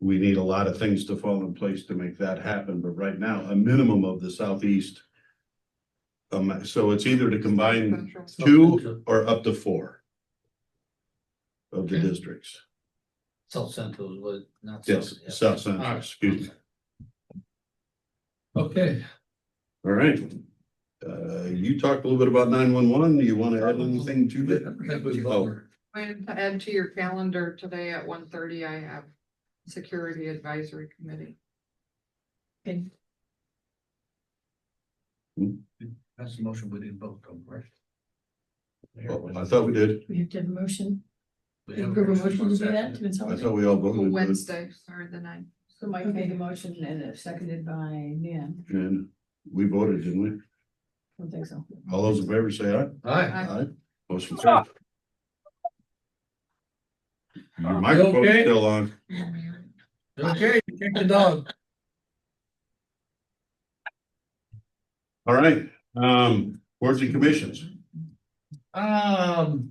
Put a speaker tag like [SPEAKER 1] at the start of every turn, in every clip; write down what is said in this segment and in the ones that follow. [SPEAKER 1] we need a lot of things to fall in place to make that happen, but right now, a minimum of the southeast. Um, so it's either to combine two or up to four. Of the
[SPEAKER 2] Okay.
[SPEAKER 1] districts,
[SPEAKER 2] South Central was not.
[SPEAKER 1] yes,
[SPEAKER 2] South, yeah.
[SPEAKER 1] south central,
[SPEAKER 2] Alright.
[SPEAKER 1] excuse me,
[SPEAKER 2] Okay,
[SPEAKER 1] all right. Uh, you talked a little bit about nine one one, do you want to add anything to
[SPEAKER 2] I
[SPEAKER 1] that?
[SPEAKER 2] forgot we
[SPEAKER 1] Oh.
[SPEAKER 2] voted.
[SPEAKER 3] And to add to your calendar today at 1:30, I have Security Advisory Committee.
[SPEAKER 2] That's the motion we didn't vote on, right?
[SPEAKER 1] Oh, I thought we did,
[SPEAKER 4] We have to have a motion,
[SPEAKER 2] We have a
[SPEAKER 4] approve a motion to do
[SPEAKER 2] second.
[SPEAKER 4] that to
[SPEAKER 1] I
[SPEAKER 4] consolidate.
[SPEAKER 1] thought we all voted. but-
[SPEAKER 3] Wednesday, sorry, the ninth.
[SPEAKER 4] So Mike made a motion and it's seconded by Nan,
[SPEAKER 1] And we voted, didn't we?
[SPEAKER 4] I don't think so.
[SPEAKER 1] All those in favor say aye.
[SPEAKER 2] Aye.
[SPEAKER 1] Aye. Motion carried. Your microphone's
[SPEAKER 2] okay?
[SPEAKER 1] still on.
[SPEAKER 2] Okay, check the dog.
[SPEAKER 1] All right, um, boards and commissions.
[SPEAKER 2] Um.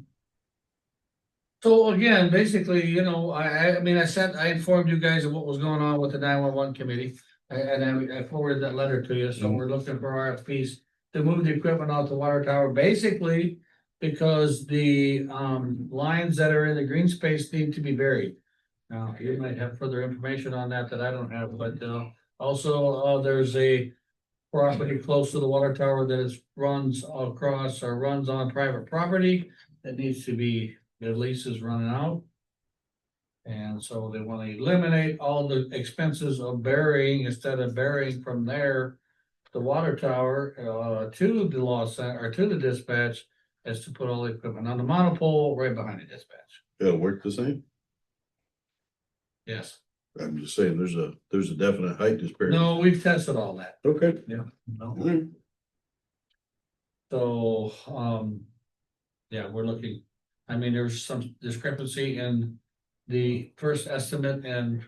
[SPEAKER 2] So again, basically, you know, I, I, I mean, I sent, I informed you guys of what was going on with the nine one one committee. a- And I, I forwarded that letter to you, so we're looking for RFPs to move the equipment off the water tower, basically. Because the, um, lines that are in the green space need to be buried. Now, you might have further information on that that I don't have, but, uh, also, uh, there's a. Property close to the water tower that is, runs across or runs on private property that needs to be, their lease is running out. And so they want to eliminate all the expenses of burying instead of burying from there. The water tower, uh, to the law center, or to the dispatch, is to put all the equipment on the monopole right behind the dispatch.
[SPEAKER 1] It'll work the same.
[SPEAKER 2] Yes,
[SPEAKER 1] I'm just saying, there's a, there's a definite height disparity.
[SPEAKER 2] no, we've tested all that.
[SPEAKER 1] Okay. All right.
[SPEAKER 2] So, um, yeah, we're looking, I mean, there's some discrepancy in the first estimate and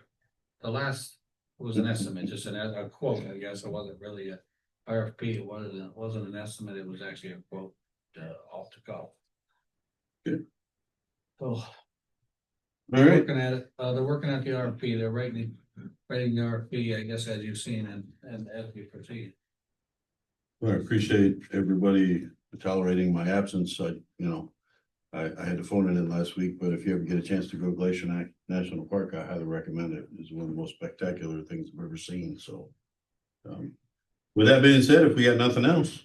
[SPEAKER 2] the last was an estimate, just an, a quote, I guess. It wasn't really a RFP. It wasn't, it wasn't an estimate. It was actually a quote, uh, off the cuff.
[SPEAKER 1] Good.
[SPEAKER 2] So
[SPEAKER 1] All
[SPEAKER 2] they're
[SPEAKER 1] right,
[SPEAKER 2] Working at it, uh, they're working at the RFP, they're writing, writing the RFP, I guess, as you've seen and, and as we proceed.
[SPEAKER 1] Well, I appreciate everybody tolerating my absence, I, you know. I, I had to phone it in last week, but if you ever get a chance to go Glacier Na- National Park, I highly recommend it. It's one of the most spectacular things I've ever seen, so. um, With that being said, if we got nothing else.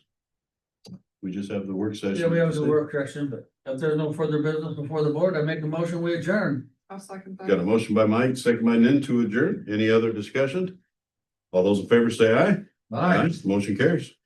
[SPEAKER 1] We just have the work session.
[SPEAKER 2] Yeah, we have the work correction, but if there's no further business before the board, I make a motion, we adjourn.
[SPEAKER 3] I'll second that.
[SPEAKER 1] Got a motion by Mike, second by Nin to adjourn. Any other discussion? All those in favor say aye. Motion carries.